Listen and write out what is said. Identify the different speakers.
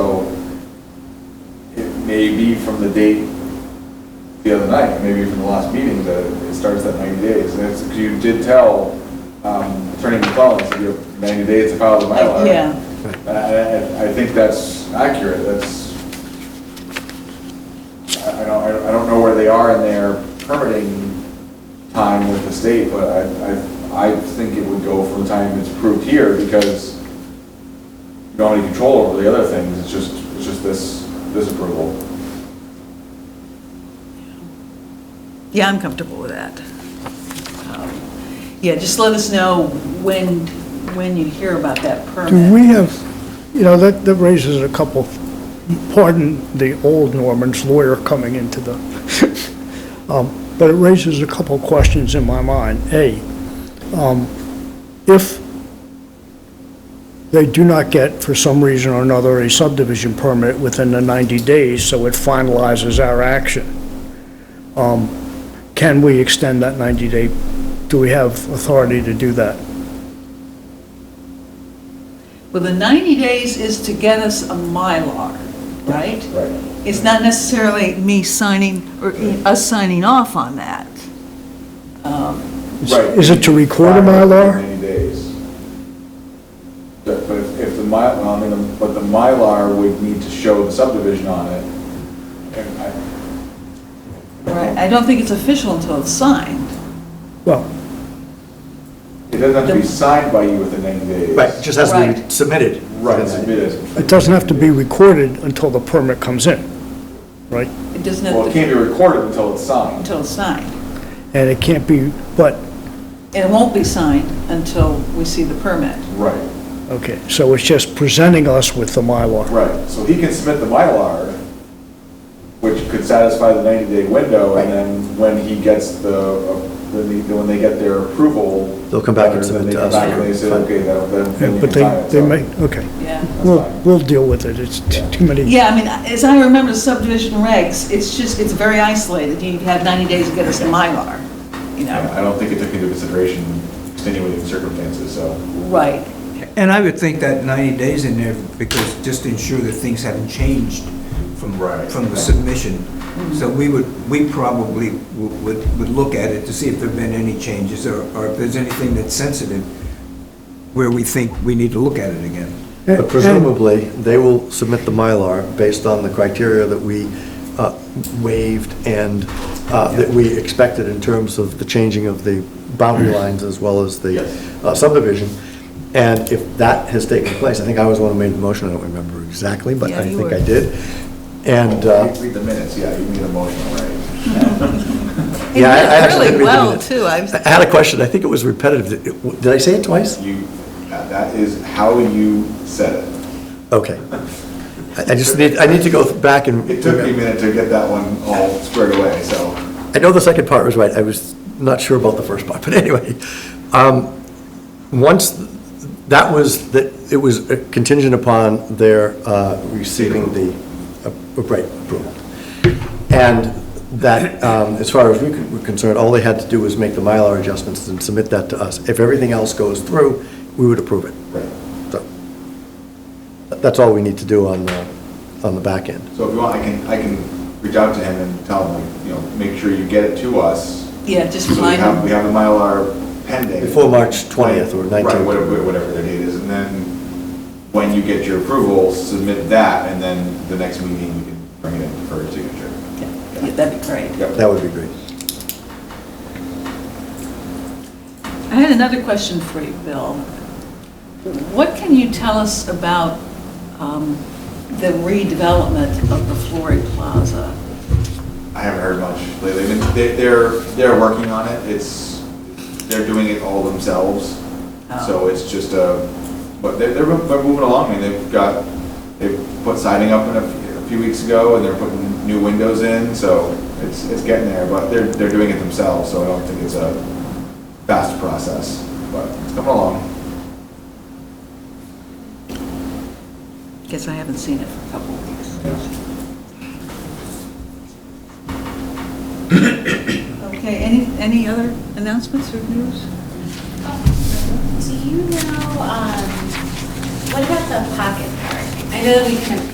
Speaker 1: may be from the date the other night, maybe from the last meeting, that it starts at 90 days. And it's, 'cause you did tell um, Attorney McClellan, so you have 90 days to file the Mylar.
Speaker 2: Yeah.
Speaker 1: And I, I- I think that's accurate, that's, I I don't, I don't- I don't know where they are in their permitting time with the state, but I, I, I think it would go from the time it's approved here, because you don't have any control over the other things, it's just, it's just this, this approval.
Speaker 2: Yeah, I'm comfortable with that. Um, Yeah, just let us know when, when you hear about that
Speaker 3: Do we
Speaker 2: permit.
Speaker 3: have, you know, that, that raises a couple, pardon the old Norman's lawyer coming into the, Um, but it raises a couple questions in my mind. A, um, if they do not get, for some reason or another, a subdivision permit within the 90 days, so it finalizes our action, um, can we extend that 90-day? Do we have authority to do that?
Speaker 2: Well, the 90 days is to get us a Mylar, right?
Speaker 1: Right.
Speaker 2: It's not necessarily me signing, or us signing off on that. Um,
Speaker 3: Is- Is it to record a
Speaker 1: Right.
Speaker 3: Mylar?
Speaker 1: Ninety days. But but if if the Mylar, I mean, the- but the Mylar would need to show the subdivision on it. And I-
Speaker 2: Right, I don't think it's official until it's signed.
Speaker 3: Well,
Speaker 1: It doesn't have to be signed by you within ninety days.
Speaker 4: Right, it just has to be
Speaker 2: Right.
Speaker 4: submitted.
Speaker 1: Right, submitted.
Speaker 3: it doesn't have to be recorded until the permit comes in, right?
Speaker 2: It doesn't
Speaker 1: Well,
Speaker 2: have
Speaker 1: it can't
Speaker 2: to,
Speaker 1: be recorded until it's signed.
Speaker 2: until it's signed.
Speaker 3: And it can't be, but,
Speaker 2: And it won't be signed until we see the permit.
Speaker 1: Right,
Speaker 3: okay, so it's just presenting us with the Mylar.
Speaker 1: right. So he can submit the Mylar, which could satisfy the ninety-day window, and then when he gets the, when they, when they get their approval.
Speaker 4: They'll come back and
Speaker 1: letter, then
Speaker 4: submit
Speaker 1: they
Speaker 4: to
Speaker 1: come
Speaker 4: us.
Speaker 1: back and They say, okay, that'll- then. then you
Speaker 3: But
Speaker 1: can sign it."
Speaker 3: they, they
Speaker 1: So-
Speaker 3: may, okay.
Speaker 2: Yeah.
Speaker 3: We'll, we'll deal with it, it's t- too many.
Speaker 2: Yeah, I mean, as I remember the subdivision regs, it's just, it's very isolated. You have 90 days to get us the Mylar, you know?
Speaker 1: I I don't think it took into consideration extenuating circumstances, so.
Speaker 2: Right.
Speaker 5: And I would think that 90 days in there, because just to ensure that things haven't changed from,
Speaker 1: Right.
Speaker 5: from the submission. So we would, we probably w- would, would look at it to see if there've been any changes, or, or if there's anything that's sensitive, where we think we need to look at it again.
Speaker 4: But presumably, they will submit the Mylar based on the criteria that we uh, waived and uh, that we expected in terms of the changing of the boundary lines as well as the
Speaker 1: Yes.
Speaker 4: uh, subdivision. And if that has taken place, I think I was the one who made the motion, I don't remember exactly, but
Speaker 2: Yeah,
Speaker 4: I
Speaker 2: you
Speaker 4: think
Speaker 2: were.
Speaker 4: I did. And, uh,
Speaker 1: Read the minutes, yeah, you need a motion, right?
Speaker 4: yeah, I I
Speaker 2: Really
Speaker 4: actually did read the
Speaker 2: well,
Speaker 4: minutes.
Speaker 2: too. I was-
Speaker 4: I had a question, I think it was repetitive, Did- did I say it twice?
Speaker 1: You, that that is how you said it.
Speaker 4: Okay. I I just need, I need to go back and.
Speaker 1: It took me a minute to get that one all squared away, so.
Speaker 4: I know the second part was right, I was not sure about the first part, but anyway. um, Once, th- that was, that, it was uh, contingent upon their uh, receiving the, uh, right, approval. And that, um, as far as we were concerned, all they had to do was make the Mylar adjustments and submit that to us. If everything else goes through, we would approve it.
Speaker 1: Right.
Speaker 4: So, That's all we need to do on, the on the back end.
Speaker 1: So if you want, I can, I can reach out to him and tell him, like, you know, make sure you get it to us.
Speaker 2: Yeah, just
Speaker 1: So we
Speaker 2: remind
Speaker 1: have, we
Speaker 2: them.
Speaker 1: have the Mylar pending.
Speaker 4: Before March 20th or
Speaker 1: Right,
Speaker 4: 19th.
Speaker 1: whatever, whatever the date is, and then when you get your approval, submit that, and then the next meeting, you can bring it in for signature.
Speaker 2: Yeah, That'd be great.
Speaker 1: Yep.
Speaker 4: That would be great.
Speaker 2: I had another question for you, Bill. What can you tell us about um, the redevelopment of the Flory Plaza?
Speaker 1: I haven't heard much lately. They've been- they- They're, they're working on it. It's, they're doing it all themselves. So
Speaker 2: Oh.
Speaker 1: it's just a, but they're, they're mo- they're moving along. I mean, they've got, they put siding up in a few- a few weeks ago and they're putting new windows in, so it's, it's getting there, but they're, they're doing it themselves, so I don't think it's a fast process, but it's coming along.
Speaker 2: Guess I haven't seen it for a couple of weeks. Okay, any, any other announcements or news?
Speaker 6: Do you know, um, what about the pocket park? I know that we kind of